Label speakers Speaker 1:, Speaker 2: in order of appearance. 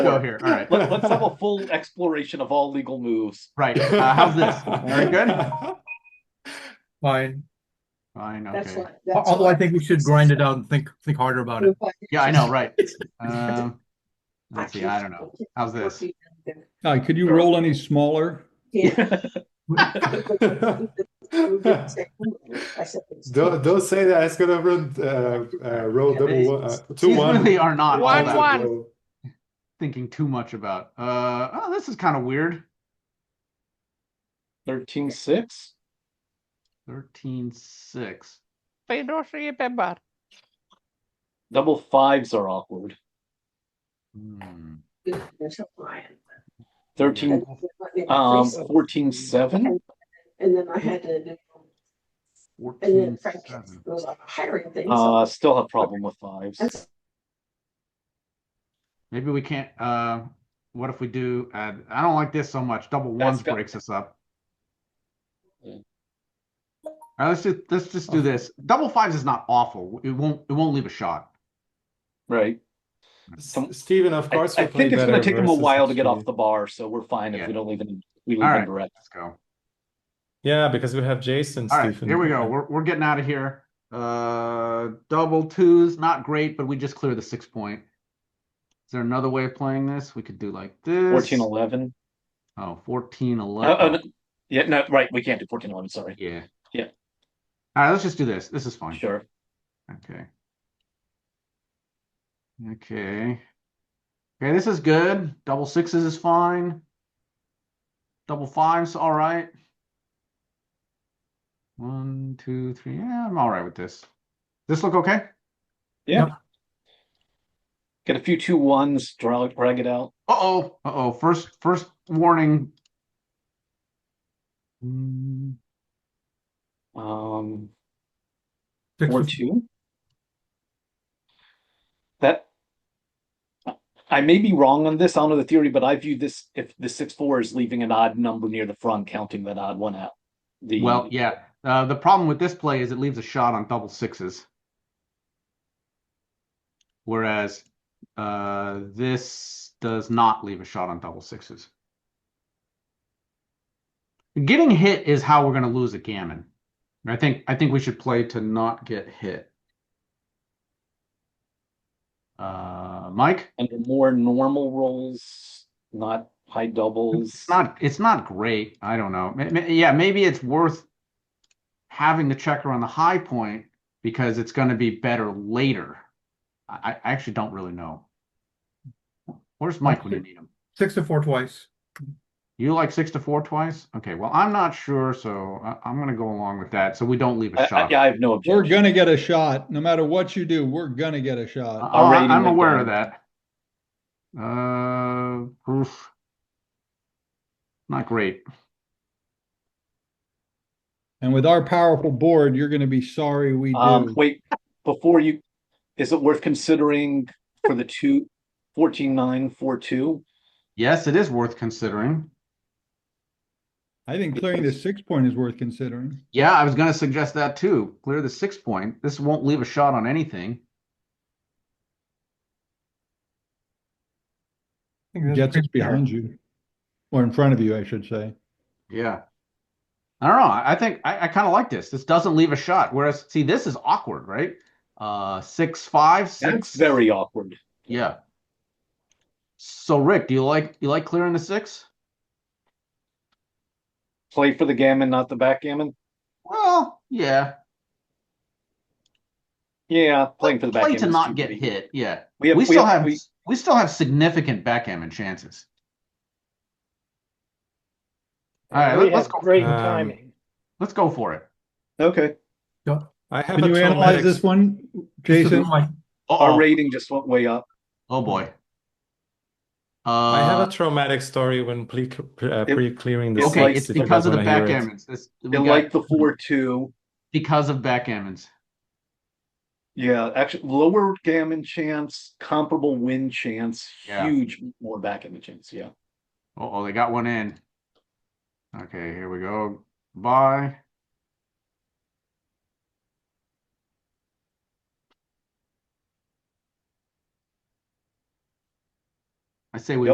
Speaker 1: go here. All right.
Speaker 2: Let, us have a full exploration of all legal moves.
Speaker 1: Right. Uh, how's this? Very good.
Speaker 3: Fine.
Speaker 1: Fine.
Speaker 4: That's
Speaker 1: Okay.
Speaker 4: what. that's
Speaker 3: Although I
Speaker 4: what-
Speaker 3: think we should grind it out and think, think harder about it.
Speaker 1: Yeah, I know. Right. Um, let's see. I don't know. How's this?
Speaker 5: Guy, could you roll any smaller?
Speaker 4: Yeah. I said it's-
Speaker 6: Don't, don't say that it's gonna run uh, uh, roll
Speaker 1: Yeah,
Speaker 6: double
Speaker 1: these-
Speaker 6: one, uh, two
Speaker 1: These
Speaker 6: one.
Speaker 1: really are not all
Speaker 7: One,
Speaker 1: that
Speaker 7: one.
Speaker 1: thinking too much about. Uh, oh, this is kind of weird.
Speaker 2: Thirteen six.
Speaker 1: 13 6.
Speaker 7: They don't remember.
Speaker 2: Double fives are awkward.
Speaker 1: Hmm.
Speaker 4: There's a lion.
Speaker 2: Thirteen, um, fourteen seven.
Speaker 4: And then I had to, do-
Speaker 1: 14
Speaker 4: and then Frank
Speaker 1: seven.
Speaker 4: was on a hiring thing. so-
Speaker 2: Uh, still have problem with
Speaker 4: And
Speaker 2: fives.
Speaker 4: so
Speaker 1: Maybe we can't. Uh, what if we do? Uh, I don't like this so much. Double
Speaker 2: That's
Speaker 1: ones
Speaker 2: got-
Speaker 1: breaks us up.
Speaker 2: Yeah. Oh.
Speaker 1: All right, let's do, let's just do this. Double fives is not awful. It won't it won't leave a shot.
Speaker 2: Right.
Speaker 6: S- Steven, of
Speaker 2: I,
Speaker 6: course,
Speaker 2: I
Speaker 6: will play
Speaker 2: think it's gonna
Speaker 6: better
Speaker 2: take them a
Speaker 6: versus
Speaker 2: while to get
Speaker 6: Chile.
Speaker 2: off the bar, so we're fine if
Speaker 1: Yeah.
Speaker 2: we don't leave any, we leave
Speaker 1: All
Speaker 2: them
Speaker 1: right.
Speaker 2: direct.
Speaker 1: Let's go.
Speaker 6: Yeah, because we have Jason.
Speaker 1: All right,
Speaker 6: Stephen.
Speaker 1: here we go. We're we're getting out of here. Uh, double twos, not great, but we just clear the six point. Is there another way of playing this? We could do like this.
Speaker 2: Fourteen eleven.
Speaker 1: Oh, 14,
Speaker 2: Uh, uh,
Speaker 1: 11.
Speaker 2: no- yeah, no, right, we can't do fourteen eleven, sorry.
Speaker 1: Yeah.
Speaker 2: Yeah.
Speaker 1: All right, let's just do this. This is fine.
Speaker 2: Sure.
Speaker 1: Okay. Okay. Okay, this is good. Double sixes is fine. Double fives, all right. One, two, three. Yeah, I'm all right with this. This look okay?
Speaker 2: Get a few two ones, draw, drag it out.
Speaker 1: Uh-oh, uh-oh, first first warning. Mm,
Speaker 2: Um,
Speaker 3: Six
Speaker 2: or
Speaker 3: of-
Speaker 2: two. That I may be wrong on this. I don't know the theory, but I view this if the six four is leaving an odd number near the front, counting that odd one out. The
Speaker 1: Well, yeah. Uh, the problem with this play is it leaves a shot on double sixes. Whereas uh, this does not leave a shot on double sixes. Getting hit is how we're going to lose a gammon. I think I think we should play to not get hit. Uh, Mike,
Speaker 2: under more normal rolls, not high doubles.
Speaker 1: it's not it's not great. I don't know. Ma- ma- Yeah, maybe it's worth having the checker on the high point because it's going to be better later. I, I actually don't really know. Where's Mike when you need him?
Speaker 3: Six to four twice.
Speaker 1: You like six to four twice? Okay, well, I'm not sure, so I, I'm going to go along with that. So we don't leave
Speaker 2: I,
Speaker 1: a
Speaker 2: I,
Speaker 1: shot.
Speaker 2: yeah, I have no
Speaker 5: We're
Speaker 2: objection.
Speaker 5: gonna get a shot. No matter what you do, we're gonna get a shot.
Speaker 1: I,
Speaker 2: rating
Speaker 1: am
Speaker 2: went
Speaker 1: aware of
Speaker 2: down.
Speaker 1: that. Uh, oof. Not great.
Speaker 5: And with our powerful board, you're gonna be sorry we
Speaker 2: Um,
Speaker 5: do.
Speaker 2: wait, before you, is it worth considering for the two fourteen nine four two?
Speaker 1: Yes, it is worth considering.
Speaker 5: I think clearing the six point is worth considering.
Speaker 1: Yeah, I was going to suggest that too. Clear the six point. This won't leave a shot on anything.
Speaker 3: I think that's
Speaker 5: Jets is
Speaker 3: pretty fair.
Speaker 5: behind you. Or in front of you, I should say.
Speaker 1: Yeah. I don't know. I I think I, I kind of like this. This doesn't leave a shot. Whereas, see, this is awkward, right? Uh, six, five,
Speaker 2: That's
Speaker 1: six.
Speaker 2: very awkward.
Speaker 1: Yeah. So, Rick, do you like you like clearing the six?
Speaker 2: Play for the gammon, not the backgammon.
Speaker 1: Well, yeah.
Speaker 2: Yeah, playing for the
Speaker 1: Play
Speaker 2: backgammon.
Speaker 1: to
Speaker 2: is
Speaker 1: not
Speaker 2: too
Speaker 1: get
Speaker 2: big.
Speaker 1: hit. Yeah.
Speaker 2: We have,
Speaker 1: we still have
Speaker 2: we-
Speaker 1: we still have significant backgammon chances. All right,
Speaker 8: We
Speaker 1: let, us
Speaker 8: had
Speaker 1: go.
Speaker 8: Great
Speaker 6: Um,
Speaker 8: timing.
Speaker 1: Let's go for it.
Speaker 2: okay.
Speaker 6: I have
Speaker 5: Can
Speaker 6: a
Speaker 5: you analyze
Speaker 6: traumatic-
Speaker 5: this one,
Speaker 3: Six of
Speaker 5: Jason?
Speaker 3: my-
Speaker 2: Our
Speaker 1: Uh-oh.
Speaker 2: rating just went way up.
Speaker 1: Oh boy. Uh,
Speaker 6: I have a traumatic story when pre uh,
Speaker 2: It-
Speaker 6: pre clearing the
Speaker 2: it's
Speaker 1: okay,
Speaker 2: like-
Speaker 1: it's
Speaker 6: six, if you
Speaker 1: because
Speaker 6: guys
Speaker 1: of the
Speaker 6: wanna hear it.
Speaker 1: backgammons. This we
Speaker 2: It
Speaker 1: got-
Speaker 2: liked the four two.
Speaker 1: because of backgammons.
Speaker 2: Yeah, actually lower gammon chance, comparable win chance,
Speaker 1: Yeah.
Speaker 2: huge more backgammon chance. Yeah.
Speaker 1: Oh, they got one in. Okay, here we go. Bye. I say we